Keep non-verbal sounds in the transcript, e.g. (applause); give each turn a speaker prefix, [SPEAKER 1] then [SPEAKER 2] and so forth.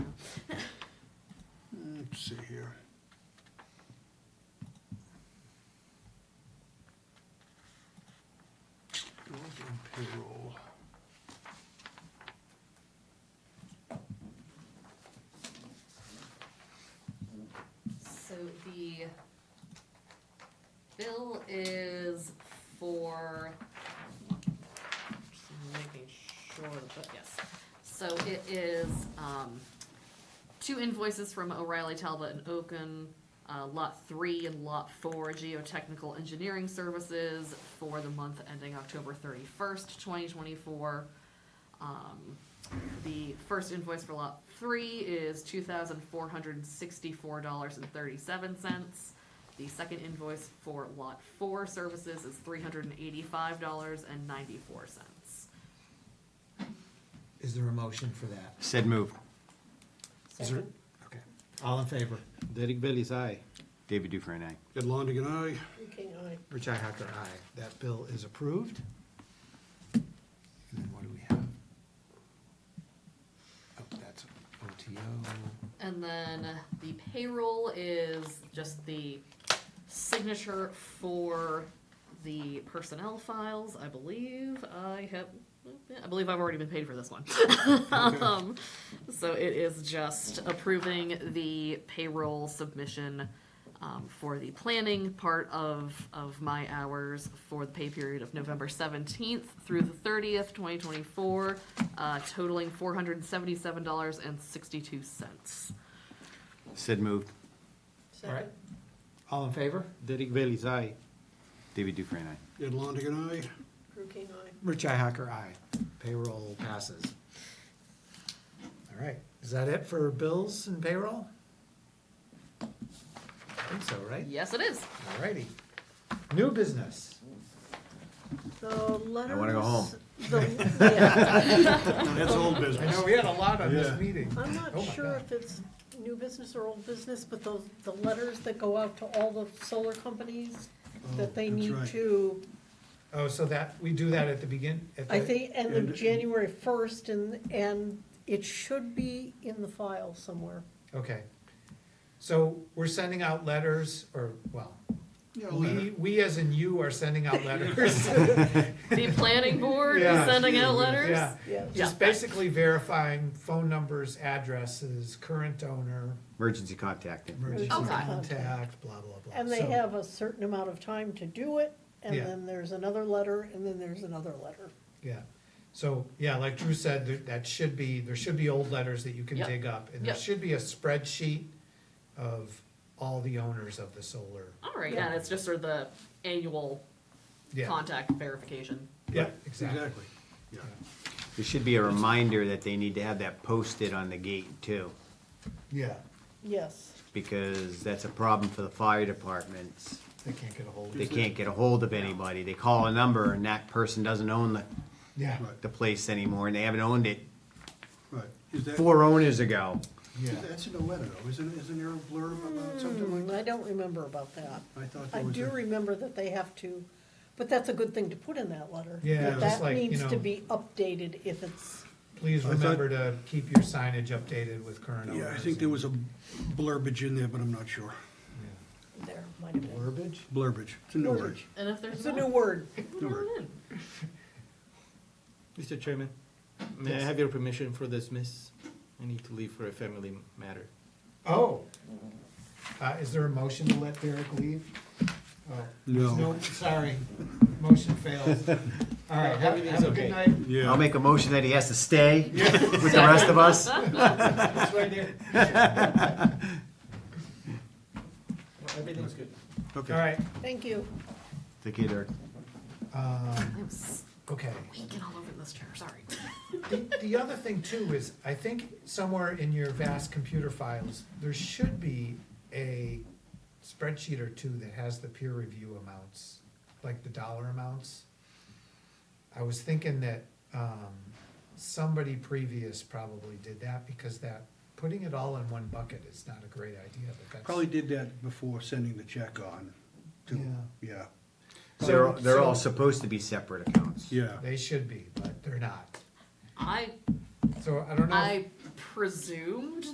[SPEAKER 1] the bill is for, just making sure, but yes. So it is, um, two invoices from O'Reilly Talbot and Oaken, uh, lot three and lot four geotechnical engineering services for the month ending October thirty-first, twenty twenty-four. Um, the first invoice for lot three is two thousand four hundred and sixty-four dollars and thirty-seven cents. The second invoice for lot four services is three hundred and eighty-five dollars and ninety-four cents.
[SPEAKER 2] Is there a motion for that?
[SPEAKER 3] Said move.
[SPEAKER 2] Is there- Okay, all in favor?
[SPEAKER 4] Derek Bailey's aye.
[SPEAKER 3] David Dufresne, aye.
[SPEAKER 5] Ed Longigan, aye.
[SPEAKER 2] Richi Hacker, aye. That bill is approved. And then what do we have? Oh, that's OTO.
[SPEAKER 1] And then the payroll is just the signature for the personnel files, I believe. I have, I believe I've already been paid for this one. (laughs) Um, So it is just approving the payroll submission um, for the planning part of, of my hours for the pay period of November seventeenth through the thirtieth, twenty twenty-four, uh, totaling four hundred and seventy-seven dollars and sixty-two cents.
[SPEAKER 3] Said move.
[SPEAKER 2] All right. All in favor?
[SPEAKER 4] Derek Bailey's aye.
[SPEAKER 3] David Dufresne, aye.
[SPEAKER 5] Ed Longigan,
[SPEAKER 6] (laughs)
[SPEAKER 5] aye.
[SPEAKER 6] Drew King, aye.
[SPEAKER 2] Richi Hacker, aye. Payroll passes. All right, is that it for bills and payroll? I think so, right?
[SPEAKER 1] Yes, it is.
[SPEAKER 2] All righty. New business.
[SPEAKER 6] The letters.
[SPEAKER 3] wanna go home. (laughs)
[SPEAKER 6] the- yeah.
[SPEAKER 5] That's old
[SPEAKER 2] I know,
[SPEAKER 5] business.
[SPEAKER 2] we had a lot on this
[SPEAKER 5] Yeah.
[SPEAKER 2] meeting. (laughs)
[SPEAKER 6] I'm
[SPEAKER 2] Oh
[SPEAKER 6] not
[SPEAKER 2] my
[SPEAKER 6] sure if
[SPEAKER 2] God.
[SPEAKER 6] it's new business or old business, but those, the letters that go out to all the solar companies that they
[SPEAKER 5] that's
[SPEAKER 6] need
[SPEAKER 5] right.
[SPEAKER 6] to,
[SPEAKER 2] Oh, so that, we do that at the begin? at
[SPEAKER 6] I
[SPEAKER 2] the-
[SPEAKER 6] think, end of
[SPEAKER 2] uh,
[SPEAKER 5] And-
[SPEAKER 6] January first, and, and it should be in the file somewhere.
[SPEAKER 2] Okay. So we're sending out letters, or, well,
[SPEAKER 5] Yeah, a letter.
[SPEAKER 2] we, we as in you are sending (laughs) out letters.
[SPEAKER 1] The planning board is
[SPEAKER 2] Yeah.
[SPEAKER 1] sending out letters.
[SPEAKER 2] Yeah, Just basically verifying phone numbers, addresses, current owner,
[SPEAKER 3] Emergency contact.
[SPEAKER 2] emergency
[SPEAKER 1] Okay.
[SPEAKER 2] contact, blah, blah, blah.
[SPEAKER 6] And they
[SPEAKER 2] So-
[SPEAKER 6] have a certain amount of time to do it, and
[SPEAKER 2] Yeah.
[SPEAKER 6] then there's another letter, and then there's another letter.
[SPEAKER 2] Yeah, so, yeah, like Drew said, there- that should be, there should be old letters that you can
[SPEAKER 1] Yep.
[SPEAKER 2] dig up. And there
[SPEAKER 1] Yep.
[SPEAKER 2] should be a spreadsheet of all the owners of the solar.
[SPEAKER 1] All right, yeah, it's just sort of the annual
[SPEAKER 2] Yeah,
[SPEAKER 1] contact verification.
[SPEAKER 2] yeah,
[SPEAKER 3] Right.
[SPEAKER 2] exactly.
[SPEAKER 5] Exactly. Yeah.
[SPEAKER 3] There should be a reminder that they need to have that posted on the gate too,
[SPEAKER 2] Yeah,
[SPEAKER 6] Yes,
[SPEAKER 3] because that's a problem for the fire departments.
[SPEAKER 2] they can't get a hold of
[SPEAKER 3] They
[SPEAKER 2] it.
[SPEAKER 3] can't get a hold of anybody. They call a number and that person doesn't own the,
[SPEAKER 2] Yeah,
[SPEAKER 5] Right.
[SPEAKER 3] the place anymore and they haven't owned it
[SPEAKER 5] Right. Is that,
[SPEAKER 3] four owners ago.
[SPEAKER 2] yeah.
[SPEAKER 5] that's in the letter though, isn't, isn't there a blurb about something like
[SPEAKER 6] Hmm,
[SPEAKER 5] that?
[SPEAKER 6] I don't remember about that.
[SPEAKER 5] I thought
[SPEAKER 6] I
[SPEAKER 5] there was
[SPEAKER 6] do
[SPEAKER 5] a,
[SPEAKER 6] remember that they have to, but that's a good thing to put in that letter.
[SPEAKER 2] Yeah,
[SPEAKER 6] That
[SPEAKER 2] just
[SPEAKER 6] That
[SPEAKER 2] like, you
[SPEAKER 6] needs to
[SPEAKER 2] know-
[SPEAKER 6] be updated if it's,
[SPEAKER 2] Please
[SPEAKER 5] I thought-
[SPEAKER 2] remember to keep your signage updated with current owners.
[SPEAKER 5] yeah, I think there was a blurbage in there, but I'm not sure.
[SPEAKER 6] there might have been.
[SPEAKER 2] Verbiage?
[SPEAKER 5] Blurbage, it's a new word.
[SPEAKER 6] Blurbage.
[SPEAKER 1] And if
[SPEAKER 6] It's
[SPEAKER 1] there's
[SPEAKER 6] a new
[SPEAKER 1] not,
[SPEAKER 6] word.
[SPEAKER 1] put it in.
[SPEAKER 4] Mr. Chairman, may I have your permission for this, miss? I need to leave for a family matter.
[SPEAKER 2] Oh. Uh, is there a motion to let Derek leave? Oh,
[SPEAKER 5] No.
[SPEAKER 2] Sorry, motion
[SPEAKER 4] (laughs)
[SPEAKER 2] fails. All right, have have a good night.
[SPEAKER 3] I'll make a motion that he has to stay
[SPEAKER 2] Yeah.
[SPEAKER 3] with the rest of
[SPEAKER 2] (laughs)
[SPEAKER 3] us.
[SPEAKER 2] It's right there. Everything's good. All right,
[SPEAKER 6] Thank you.
[SPEAKER 3] Take care, Derek.
[SPEAKER 2] um,
[SPEAKER 1] I'm squeaking
[SPEAKER 2] okay.
[SPEAKER 1] all over this chair, sorry.
[SPEAKER 2] The, the other thing too is, I think somewhere in your vast computer files, there should be a spreadsheet or two that has the peer review amounts, like the dollar amounts. I was thinking that, um, somebody previous probably did that because that, putting it all in one bucket is not a great idea, but that's.
[SPEAKER 5] Probably did that before sending the check on, to,
[SPEAKER 2] Yeah.
[SPEAKER 5] yeah,
[SPEAKER 3] They're, they're all
[SPEAKER 2] So-
[SPEAKER 3] supposed to be separate accounts.
[SPEAKER 5] yeah.
[SPEAKER 2] They should be, but they're not.
[SPEAKER 1] I,
[SPEAKER 2] So I don't know.
[SPEAKER 1] I
[SPEAKER 2] if-
[SPEAKER 1] presumed